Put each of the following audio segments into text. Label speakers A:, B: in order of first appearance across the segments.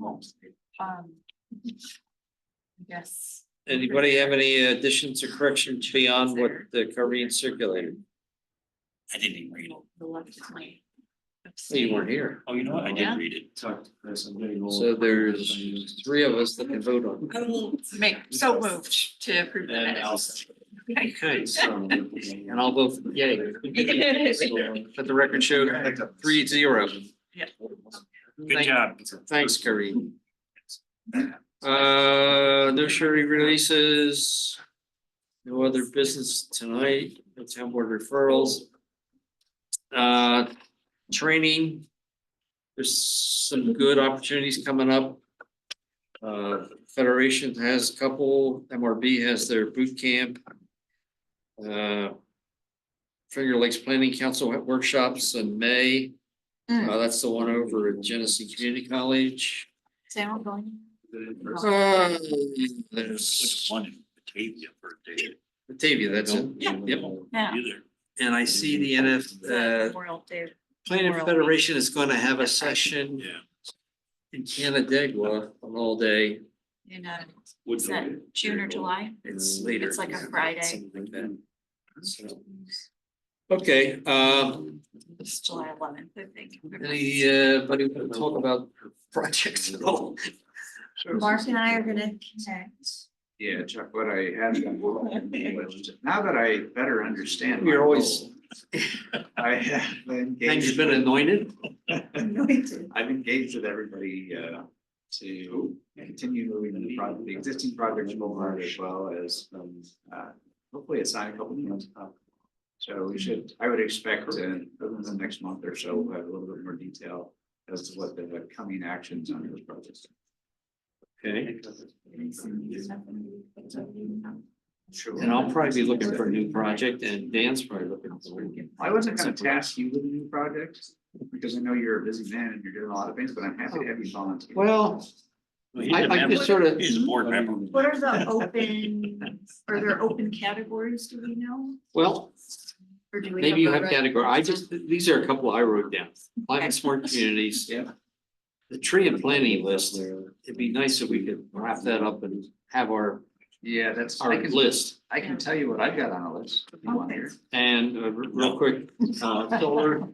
A: Oh,
B: Um. Yes.
C: Anybody have any additions or corrections beyond what the Corinne circulated?
D: I didn't even read it.
B: Reluctantly.
C: Well, You weren't here.
D: Oh, you know what? I
B: Yeah.
D: did read it.
A: Talk to Chris, I'm getting old.
C: So there's three of us that can vote on. it.
B: Make, so moved to approve the
D: And I'll-
B: minutes.
D: I could.
A: So,
C: And I'll vote for yay. But the record showed three zero.
D: Good job.
C: Thanks, Corinne. Uh, no surety releases. No other business tonight, no town board referrals. Uh, training. There's some good opportunities coming up. Uh, Federation has a couple, MRB has their boot camp. Uh. Finger Lakes Planning Council workshops in May. Uh, that's the one over at Genesee Community College.
B: Sound going?
C: Uh,
D: Which
C: There's
D: one in Batavia for David?
C: Batavia, that's it. Yep.
B: Yeah.
D: Either.
C: And I see the NF, uh,
B: Memorial Day.
C: Plaintiff
B: World.
C: Federation is gonna have a session
D: Yeah.
C: in Canandaigua on all day.
B: In uh,
A: Would
B: is that June or July?
C: It's
A: Uh,
C: later.
B: It's like a Friday.
C: Something like that. So- Okay, um,
B: It's July eleventh, I think.
C: uh, anybody want to talk about projects at all?
B: Mark and I are gonna connect.
A: Yeah, Chuck, what I had. Now that I better understand.
C: You're
A: my
C: always-
A: role, I have engaged.
C: Things have been anointed?
A: I've engaged with everybody uh to continue moving the project, the existing projects forward as well as um uh hopefully assign a couple new ones up. So we should, I would expect in the next month or so, we'll have a little bit more detail as to what the coming actions on those projects.
C: Okay.
A: Sure.
C: And I'll probably be looking for a new project and Dan's probably looking for.
A: I wasn't gonna task you with a new project because I know you're a busy man and you're doing a lot of things, but I'm happy to have you volunteer.
C: Well,
D: Well, he's
C: I-
D: a
C: I
D: member.
C: just sort of-
D: He's a board member.
B: What are the open, are there open categories, do we know?
C: well,
B: Or do we?
C: Maybe you
B: a
C: have
B: re-
C: category, I just, these are a couple I wrote down, climate smart communities.
A: Yeah.
C: The tree and planting list, it'd be nice if we could wrap that up and have our,
A: Yeah, that's, I
C: our
A: can,
C: list.
A: I can tell you what I've got on a list. if you want to hear.
C: And uh, re- real quick, uh, solar,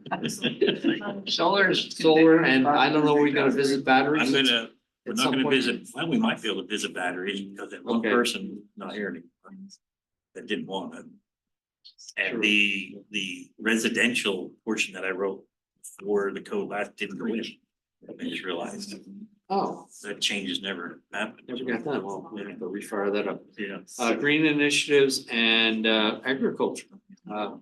A: Solar is.
C: solar, and I don't know, we're gonna visit batteries.
D: I'm gonna, we're
C: at
D: not
C: some
D: gonna
C: point.
D: visit, well, we might be able to visit batteries because that one
C: Okay.
D: person not here anymore. That didn't want it.
C: Sure.
D: And the, the residential portion that I wrote for the code last didn't go in. I just realized
C: Oh,
D: that changes never happened.
C: never got that, well, we have to refire that up.
D: Yeah.
C: Uh, green initiatives and uh, agriculture. Uh,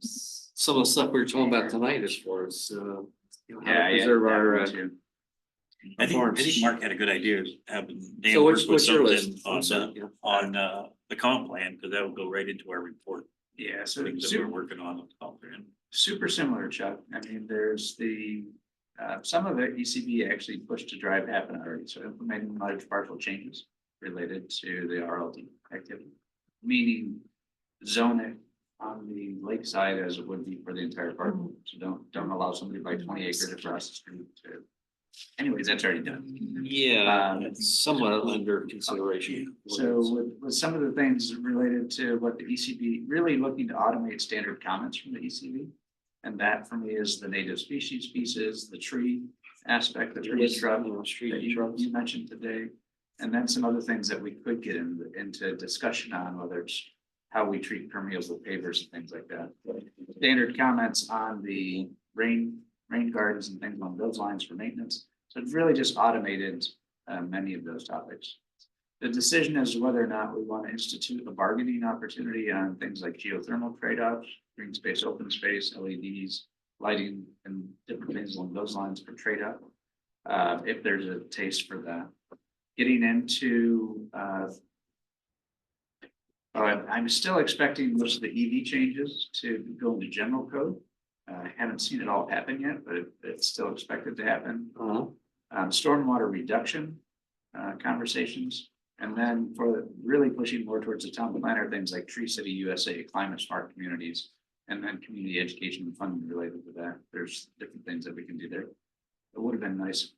C: Some of the stuff we were talking about tonight as far as, uh, you know, how
A: Yeah,
C: to
A: yeah.
C: preserve our,
A: yeah,
C: uh,
A: me too.
D: I think, I
C: farms.
D: think Mark had a good idea of having Dan
C: So
D: work
C: what's,
D: with
C: what's your
D: something
C: list? I'm
D: on,
C: sorry,
D: the-
C: yeah.
D: on, uh, the comp plan, because that will go right into our report.
A: Yeah, so
D: Things that we're
A: super,
D: working on with the comp plan.
A: super similar, Chuck. I mean, there's the, uh, some of it ECB actually pushed to drive happen already, so implementing large partial changes related to the RLD activity. Meaning zone it on the lakeside as it would be for the entire park. So don't, don't allow somebody by twenty acres across the street to. Anyways, that's already done.
C: Yeah,
A: Um,
C: it's somewhat under consideration.
A: So with, with some of the things related to what the ECB, really looking to automate standard comments from the ECB. And that for me is the native species pieces, the tree aspect, the tree shrub that you, you mentioned today. And then some other things that we could get in- into discussion on, whether it's how we treat permeables with pavers and things like that. Standard comments on the rain, rain gardens and things along those lines for maintenance. So it's really just automated uh, many of those topics. The decision is whether or not we want to institute a bargaining opportunity on things like geothermal trade-offs, green space, open space, LEDs, lighting and different things along those lines for trade-off. Uh, if there's a taste for that. Getting into, uh, all right, I'm still expecting most of the EV changes to go into general code. Uh, I haven't seen it all happen yet, but it- it's still expected to happen
C: Uh-huh.
A: um, stormwater reduction uh, conversations. And then for really pushing more towards the town planner, things like Tree City USA, climate smart communities. And then community education and funding related to that. There's different things that we can do there. It would have been nice if